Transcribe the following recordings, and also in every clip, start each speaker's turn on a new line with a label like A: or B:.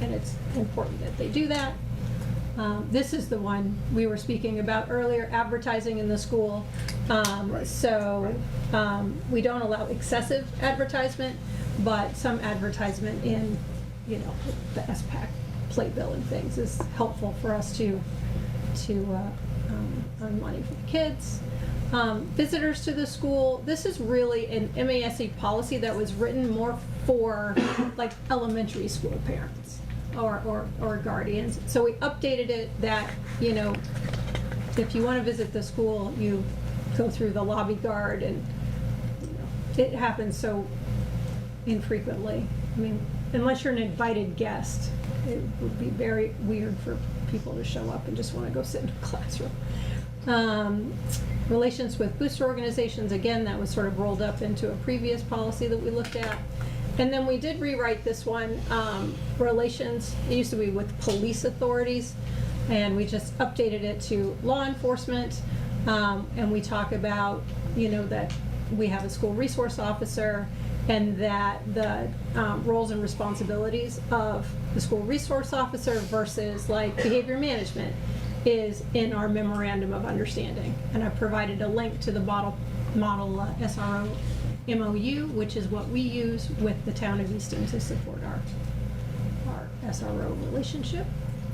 A: and it's important that they do that. Um, This is the one we were speaking about earlier, advertising in the school. Um,
B: Right.
A: So um, we don't allow excessive advertisement, but some advertisement in, you know, the SPAC playbill and things is helpful for us to, to uh, um, earn money for the kids. Um, Visitors to the school, this is really an MASC E policy that was written more for like elementary school parents or, or, or guardians. So we updated it that, you know, if you want to visit the school, you go through the lobby guard and, you know, it happens so infrequently. I mean, unless you're an invited guest, it would be very weird for people to show up and just want to go sit in a classroom. Um, Relations with booster organizations, again, that was sort of rolled up into a previous policy that we looked at. And then we did rewrite this one, um, relations, it used to be with police authorities, and we just updated it to law enforcement. Um, and we talk about, you know, that we have a school resource officer and that the um, roles and responsibilities of the school resource officer versus like behavior management is in our memorandum of understanding. And I provided a link to the model, model uh, SRO MOU, which is what we use with the town of Easton to support our, our SRO relationship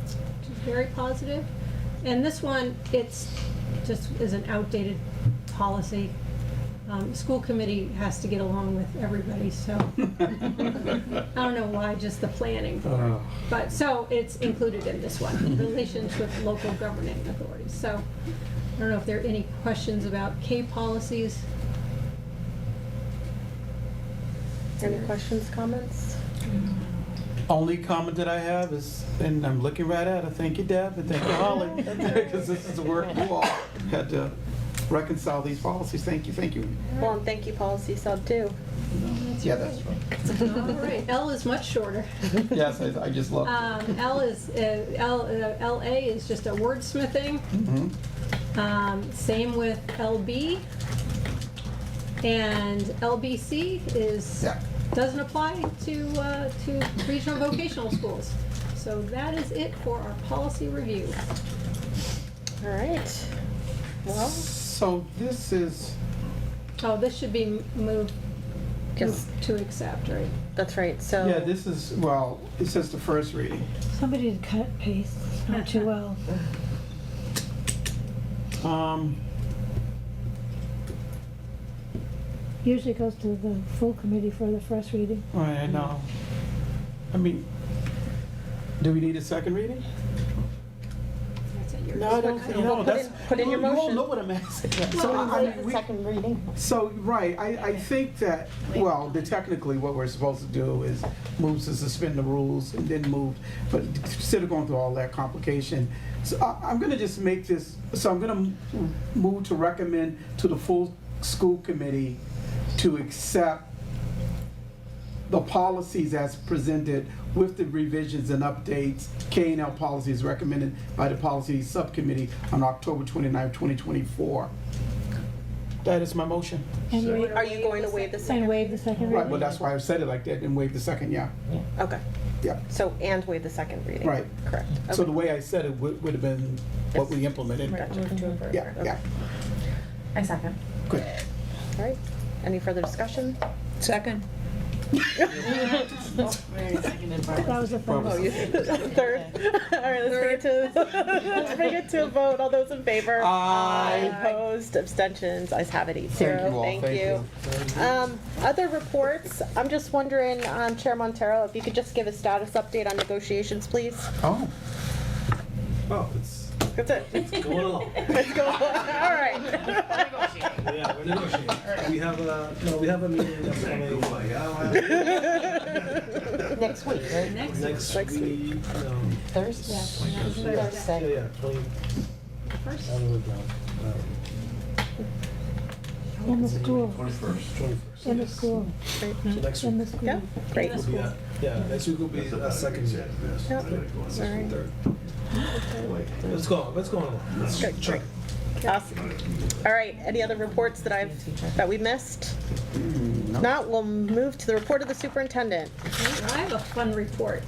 A: which is very positive. And this one, it's just is an outdated policy. Um, school committee has to get along with everybody, so I don't know why, just the planning board.
B: Oh.
A: But, so it's included in this one, relations with local governing authorities. So I don't know if there are any questions about K policies.
C: Any questions, comments?
B: Only comment that I have is, and I'm looking right at her, thank you, Deb, and thank you, Holly, because this is the work you all had to reconcile these policies. Thank you, thank you.
C: Well, and thank you, policy sub too.
B: Yeah, that's right.
A: All right, L is much shorter.
B: Yes, I, I just love
A: Um, L is, uh, L, uh, LA is just a wordsmithing.
B: it.
A: Um, same with LB. And LBC is,
B: Yeah.
A: doesn't apply to, uh, to regional vocational schools. So that is it for our policy review.
C: All right. Well,
B: So this is,
A: Oh, this should be m- moved,
C: Yes.
A: moved to accept, right?
C: that's right. So
B: yeah, this is, well, it says the first reading.
D: Somebody had cut paste, It's not too well.
B: Um,
D: Usually goes to the full committee for the first reading.
B: all right, I know. I mean, do we need a second reading?
A: That's at your
B: No, I don't,
A: discretion.
C: Well,
B: no,
C: put
B: that's.
C: in- put in your
B: You all
C: motion.
B: know what I'm asking. So,
C: Someone
B: I
C: said
B: mean,
C: the
B: we-
C: second reading.
B: So, right, I, I think that, well, the technically what we're supposed to do is move to suspend the rules and then move, but instead of going through all that complication, so I, I'm gonna just make this, so I'm gonna m- move to recommend to the full school committee to accept the policies as presented with the revisions and updates, K and L policies recommended by the policy subcommittee on October 29, twenty-four. That is my motion.
D: And
A: Sure.
D: waive,
C: Are you going to waive the
D: and
C: second?
D: waive the second
B: Right,
D: reading.
B: well, that's why I said it like that and waived the second, yeah.
C: Okay.
B: Yeah.
C: So and waive the second reading.
B: Right.
C: Correct.
B: So
C: Okay.
B: the way I said it would, would have been what we implemented.
C: Right.
E: Move to approve.
B: Yeah, yeah,
E: I second.
B: good.
C: Oh, All right. Any further discussion?
F: Second.
D: That was the
B: Well,
C: Oh,
D: first.
C: you third. All right. Let's bring it to let's bring it to a vote. All those in favor?
B: Aye.
C: Opposed? Abstentions? Eyes have it. Eight zero.
B: Thank you all, thank you.
C: Um, other reports, I'm just wondering, um, Chair Montero, if you could just give a status update on negotiations, please?
B: Oh,
G: Oh, it's
C: That's it.
G: going along.
C: Let's go. All right.
G: Yeah, we're negotiating. We have a, no, we have a meeting that's coming.
E: Next week, right?
G: Next
C: Next
G: week, um,
E: Thursday?
G: yeah,
E: Thursday.
G: yeah, twenty,
A: First,
G: I don't know,
D: In the school,
G: twenty-first.
D: in the school,
G: So next
D: in
G: week
D: the school.
C: Yeah, great.
G: will be, uh, yeah, next week will be a second.
C: Yep.
G: Second, third. Let's go, let's go on. Let's
C: Great,
G: check.
C: Awesome. All right, any other reports that I've, that we missed? Not, we'll move to the report of the superintendent.
A: I have a fun report.